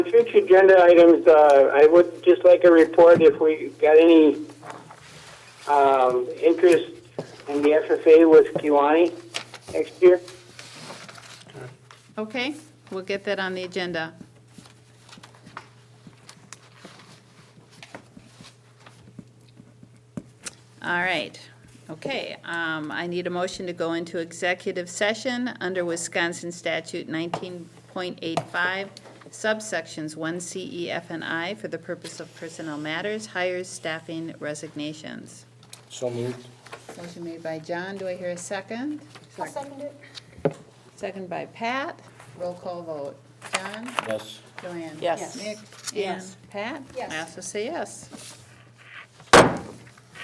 Future agenda items, uh, I would just like a report if we got any um, interest in the FFA with Kiwani next year. Okay, we'll get that on the agenda. All right, okay, um, I need a motion to go into executive session under Wisconsin statute nineteen point eight five, subsections one C, E, F, and I for the purpose of personnel matters, hires, staffing, resignations. So moved. Motion made by John, do I hear a second? I'll second it. Second by Pat, roll call vote. John? Yes. Joanne? Yes. Nick? Yes. Ann? Pat? Yes. I also say yes.